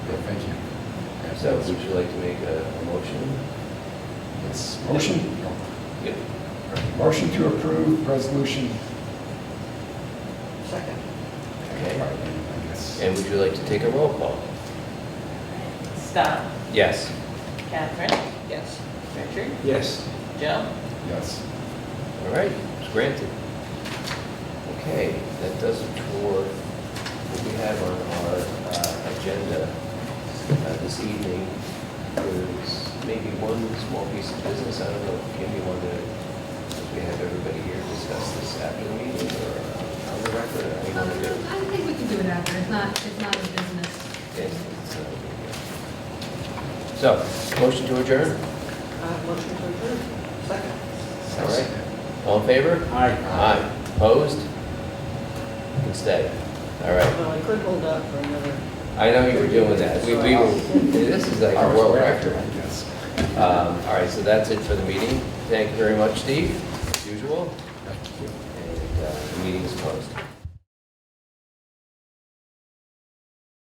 So would you like to make a a motion? It's motion, Yep. motion to approve resolution. Second. Okay. I guess. And would you like to take a roll call? Scott, Yes. Catherine, Yes. Richard, Yes. Joe, Yes. All right, it's granted. Okay, that does it for what we have on our uh, agenda uh, this evening. There's maybe one small piece of business, I don't know if Kim, you wanted, if we have everybody here discuss this after the meeting or uh, on the record, or how you Um, want to do it? I think we can do it after, it's not, it's not a business. Yes, it's, uh, So, motion to adjourn, Uh, Motion to approve. Second. all right? All in favor? Aye. Opposed? Can stay. All right. Well, I could hold up for another. I know you were doing that. We, we were, this is like a Ours world were record. after, I guess. Um, all right, so that's it for the meeting. Thank you very much, Steve, as usual. Thank you. And, uh, the meeting is closed.